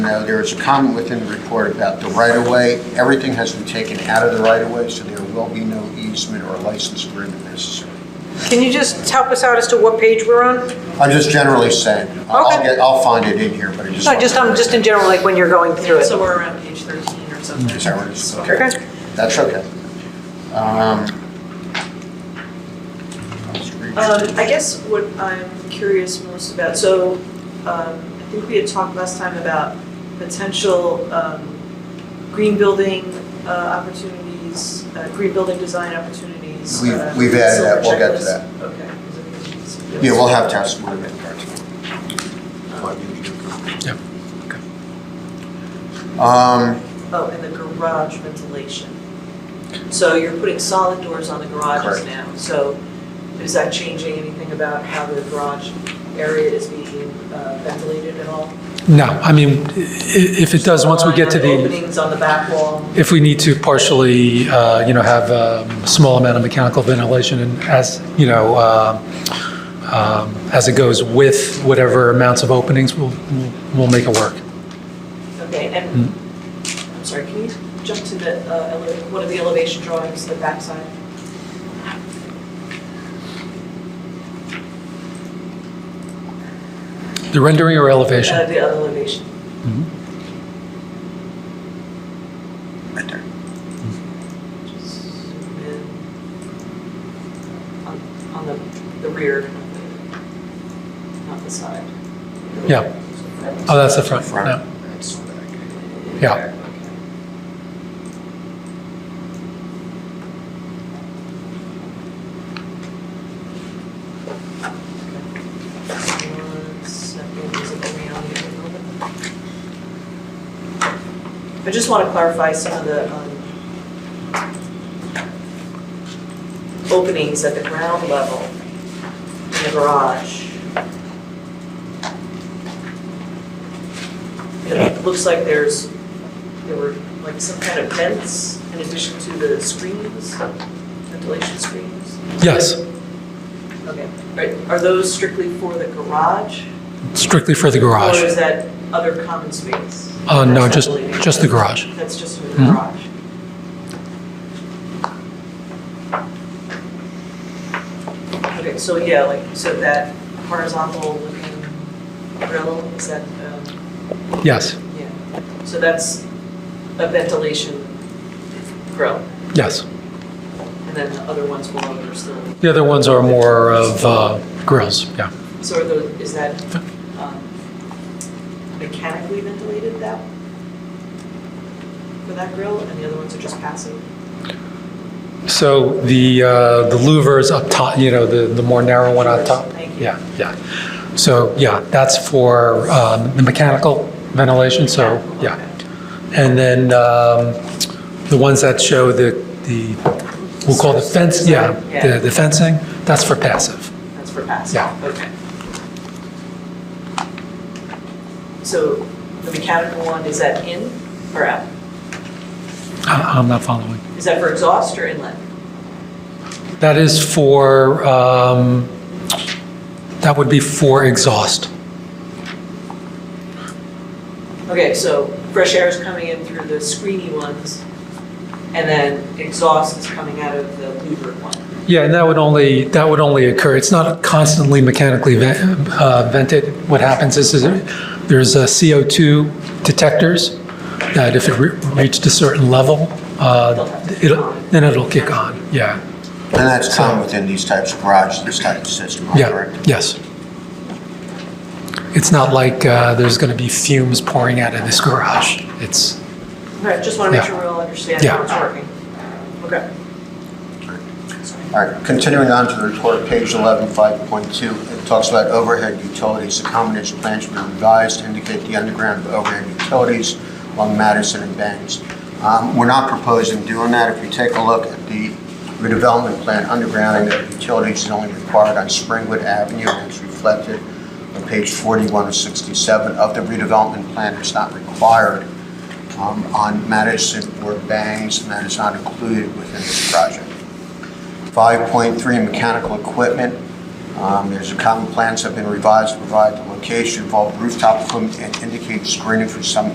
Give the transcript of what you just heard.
know, there is a comment within the report about the right-of-way. Everything has been taken out of the right-of-way, so there will be no easement or license agreement necessary. Can you just help us out as to what page we're on? I'm just generally saying, I'll- I'll Okay. get, I'll find it in here, but I just. No, just, um, just in general, like when you're going through it. So we're around page 13 or something. Is that what it is? So- Okay. That's okay. Um, Uh, Um, I guess what I'm curious most about, so, um, I think we had talked last time about potential, um, green building, uh, opportunities, uh, green building design opportunities. We've- uh, we've added that. silver We'll get to checklist. that. Okay. Is it- is it- Yeah, we'll have testimony in part Um, Oh, and the garage ventilation. So you're putting solid doors on the garages Correct. now, so is that changing anything about how the garage area is being uh, ventilated at all? No, I mean, i- if it does, once we get to the, Openings on the back wall, if we need to partially, uh, you know, have a small amount of mechanical ventilation and as, you know, uh, um, as it goes with whatever amounts of openings, we'll, we'll- we'll make it work. okay, and, Hmm. I'm sorry, can you jump to the, uh, ele- one of the elevation drawings, the backside? The rendering or Uh, elevation? The elevation, right there. just zoom in. On, on the, the rear, not the- not the side. Yeah. Oh, that's the front, Front. no. That's the back. Yeah. One second, is it going on here a little bit? I just want to clarify some of the um, openings at the ground level in the garage. It looks like there's, there were like some kind of vents in addition to the screens, ventilation screens? Yes, Okay, Are- are those strictly for the garage? strictly for the Or garage. is that other common space? Uh, no, That's just, ventilated? just the garage. That's just for the Mhm. garage? Okay, so yeah, like, so that horizontal looking grill, is that, um, Yes, Yeah, so that's a ventilation grill, yes. and then the other ones below are still, The other ones are more of uh, grills, yeah. so are those, is that um, mechanically ventilated that? For that grill, and the other ones are just passive? So the, uh, the louvers up top, you know, the, the more narrow one on top? Thank you. Yeah, yeah. So, yeah, that's for um, the mechanical ventilation, so, yeah. And then um, the ones that show the, the, we'll call the fence, yeah, the the fencing, that's for passive. That's for passive? Yeah. Okay. So the mechanical one, is that in or out? I- I'm not following. Is that for exhaust or inlet? That is for, um, that would be for exhaust. Okay, so fresh air is coming in through the screeny ones, and then exhaust is coming out of the louvered one. Yeah, and that would only, that would only occur, it's not constantly mechanically ven- uh, vented. What happens is, is there's uh, CO2 detectors that if it re- reached a certain level, uh, it'll, then it'll kick on, yeah, And that's common within these types of garages, this type of system, yeah, correct? yes. It's not like uh, there's going to be fumes pouring out of this garage, it's, Right, just want to make Yeah. sure we all understand how it's Yeah. working. Okay. All right, continuing on to the report, page 11, 5.2, it talks about overhead utilities. The combination plans should be revised to indicate the underground of overhead utilities along Madison and Banks. Um, We're not proposing doing that. If you take a look at the redevelopment plan, undergrounding of utilities is only required on Springwood Avenue, and it's reflected on page 41 of 67 of the redevelopment plan. It's not required um, on Madison or Bangs, and that is not included within this project. 5.3, mechanical equipment. Um, There's a common plans have been revised to provide the location, involve rooftop equipment, and indicate screening for some